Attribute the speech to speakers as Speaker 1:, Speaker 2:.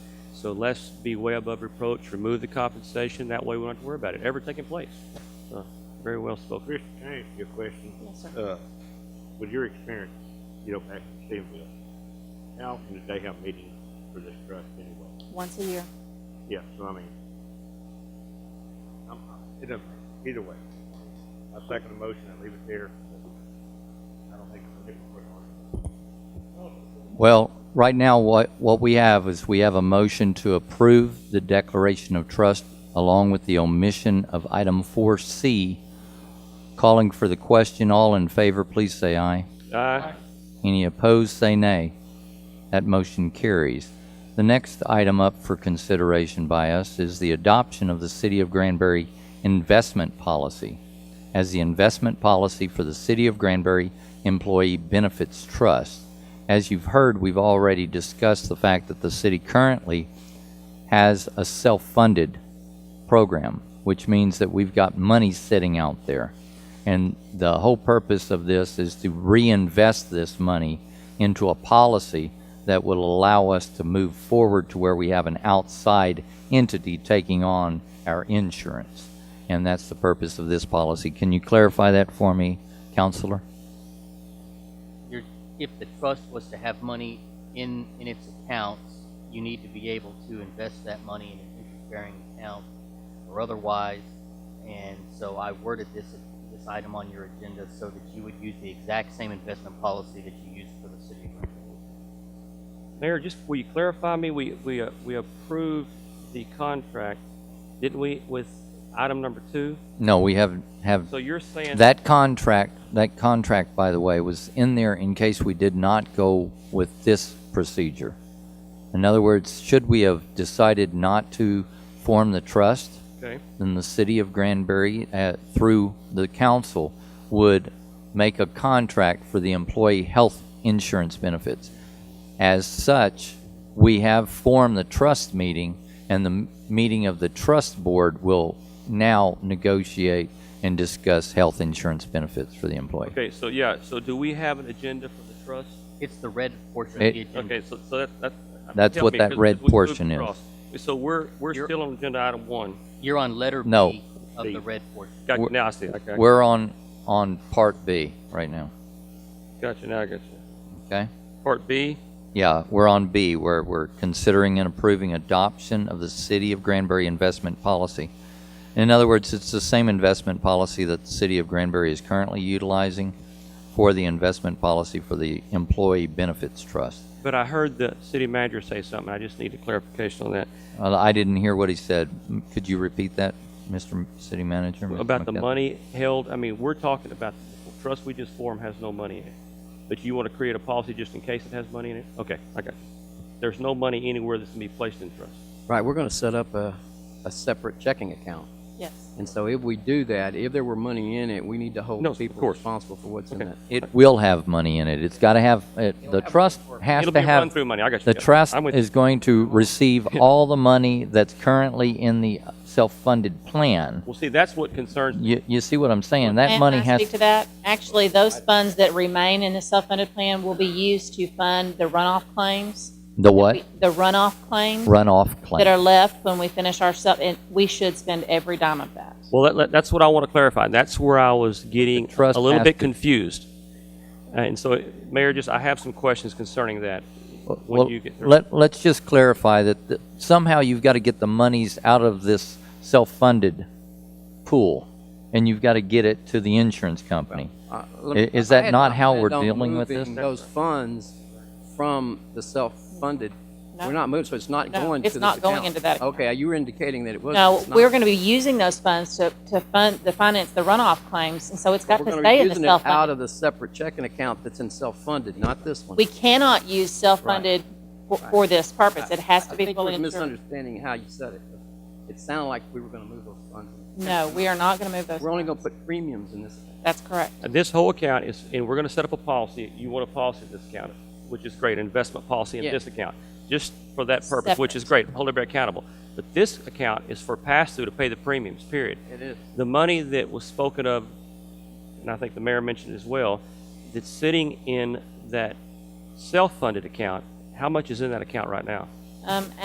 Speaker 1: So let's be way above reproach, remove the compensation, that way we don't have to worry about it ever taking place. Uh, Very well spoken.
Speaker 2: Chris, can I ask you a question?
Speaker 3: Yes, sir.
Speaker 2: Uh, with your experience, you know, back in Stevenville, how often did they have meetings for this trust anyway?
Speaker 3: Once a year.
Speaker 2: Yeah, so I mean, I'm, it doesn't, matter. either way, I second the motion and leave it there. I don't think it's a different question.
Speaker 4: Well, right now, what, what we have is we have a motion to approve the declaration of trust along with the omission of item 4C. Calling for the question, all in favor, please say aye.
Speaker 1: Aye.
Speaker 4: Any opposed, say nay. That motion carries. The next item up for consideration by us is the adoption of the City of Granbury investment policy as the investment policy for the City of Granbury Employee Benefits Trust. As you've heard, we've already discussed the fact that the city currently has a self-funded program, which means that we've got money sitting out there. And the whole purpose of this is to reinvest this money into a policy that will allow us to move forward to where we have an outside entity taking on our insurance. And that's the purpose of this policy. Can you clarify that for me, Counselor?
Speaker 5: you're, if the trust was to have money in, in its accounts, you need to be able to invest that money in an interest-bearing account or otherwise. And so I worded this, this item on your agenda so that you would use the exact same investment policy that you used for the city of Greenville.
Speaker 1: Mayor, just will you clarify me, we, we, uh, we approved the contract, didn't we, with item number two?
Speaker 4: No, we have, have
Speaker 1: So you're saying.
Speaker 4: That contract, that contract, by the way, was in there in case we did not go with this procedure. In other words, should we have decided not to form the trust,
Speaker 1: Okay,
Speaker 4: then the city of Granbury, uh, through the council, would make a contract for the employee health insurance benefits. As such, we have formed the trust meeting, and the m- meeting of the trust board will now negotiate and discuss health insurance benefits for the employee.
Speaker 1: okay, so yeah, so do we have an agenda for the trust?
Speaker 5: It's the red portion of the
Speaker 4: It-
Speaker 5: agenda.
Speaker 1: Okay, so, so that, that.
Speaker 4: Mm. That's
Speaker 1: help
Speaker 4: what
Speaker 1: me,
Speaker 4: that
Speaker 1: 'cause-
Speaker 4: red
Speaker 1: 'cause we moved
Speaker 4: portion is.
Speaker 1: across. So we're, we're
Speaker 5: You're-
Speaker 1: still on agenda item one.
Speaker 5: You're on letter
Speaker 4: No.
Speaker 5: B of
Speaker 2: B.
Speaker 5: the red portion.
Speaker 1: Got,
Speaker 4: We're-
Speaker 1: now I see, okay,
Speaker 4: We're on, on part B right now,
Speaker 1: gotcha, now I got you.
Speaker 4: okay?
Speaker 1: Part B,
Speaker 4: Yeah, we're on B, where we're considering and approving adoption of the City of Granbury investment policy. In other words, it's the same investment policy that the City of Granbury is currently utilizing for the investment policy for the Employee Benefits Trust.
Speaker 1: but I heard the city manager say something, I just need a clarification on that.
Speaker 4: Uh, I didn't hear what he said. M- Could you repeat that, Mr. M- City Manager? Mr.
Speaker 1: About the
Speaker 4: McCall-
Speaker 1: money held, I mean, we're talking about, the trust we just formed has no money in it. But you want to create a policy just in case it has money in it? Okay, I got you. There's no money anywhere that's going to be placed in trust.
Speaker 6: Right, we're going to set up a, a separate checking account.
Speaker 3: Yes.
Speaker 6: And so if we do that, if there were money in it, we need to
Speaker 1: No,
Speaker 6: hold
Speaker 1: of
Speaker 6: people
Speaker 1: course.
Speaker 6: responsible for what's in
Speaker 1: Okay.
Speaker 6: that.
Speaker 4: It will have money in it. It's got to have, it- the trust has
Speaker 1: It'll
Speaker 4: to
Speaker 1: be
Speaker 4: have.
Speaker 1: run-through money, I got you.
Speaker 4: The
Speaker 1: Yeah,
Speaker 4: trust
Speaker 1: I'm with you.
Speaker 4: is going to receive all the money that's currently in the self-funded plan.
Speaker 1: Well, see, that's what concerns me.
Speaker 4: You, you see what I'm saying?
Speaker 3: May I-
Speaker 4: That money
Speaker 3: may I
Speaker 4: has,
Speaker 3: Speak to that. Actually, those funds that remain in the self-funded plan will be used to fund the runoff claims.
Speaker 4: the what?
Speaker 3: The runoff claims
Speaker 4: Runoff
Speaker 3: that are
Speaker 4: claim.
Speaker 3: left when we finish our self, and we should spend every dime of that.
Speaker 1: Well, that- that, that's what I want to clarify. That's where I was getting
Speaker 4: The trust
Speaker 1: a little
Speaker 4: has
Speaker 1: bit
Speaker 4: to-
Speaker 1: confused. And so, Mayor, just, I have some questions concerning that. When
Speaker 4: Well,
Speaker 1: you get through-
Speaker 4: let, let's just clarify that the- somehow you've got to get the monies out of this self-funded pool, and you've got to get it to the insurance company.
Speaker 6: Uh, let me-
Speaker 4: I- is
Speaker 6: I
Speaker 4: that
Speaker 6: had
Speaker 4: not how
Speaker 6: planned
Speaker 4: we're
Speaker 6: on
Speaker 4: dealing with this?
Speaker 6: moving Those funds from the self-funded,
Speaker 3: No.
Speaker 6: we're not moving, so it's not
Speaker 3: No,
Speaker 6: going to
Speaker 3: it's
Speaker 6: this
Speaker 3: not going
Speaker 6: account.
Speaker 3: into that account.
Speaker 6: Okay, you were indicating that it was.
Speaker 3: No, we're going to be using those funds to, to fund, to finance the runoff claims, and so it's got to stay in the
Speaker 6: Out
Speaker 3: self-funded.
Speaker 6: of the separate checking account that's in self-funded, not this one.
Speaker 3: We cannot use self-funded for, for this purpose. It has to
Speaker 6: I
Speaker 3: be
Speaker 6: think
Speaker 3: fully
Speaker 6: we're
Speaker 3: insured.
Speaker 6: misunderstanding how you said it. It sounded like we were going to move those funds.
Speaker 3: No, we are not going to move those.
Speaker 6: We're only going to put premiums in this.
Speaker 3: That's correct.
Speaker 1: This whole account is, and we're going to set up a policy, you want a policy in this account, which is great, investment policy in
Speaker 6: Yeah.
Speaker 1: this account, just for that purpose, which is great, hold everybody accountable. But this account is for pass-through to pay the premiums, period.
Speaker 6: It is.
Speaker 1: The money that was spoken of, and I think the mayor mentioned as well, that's sitting in that self-funded account, how much is in that account right now?
Speaker 3: Um,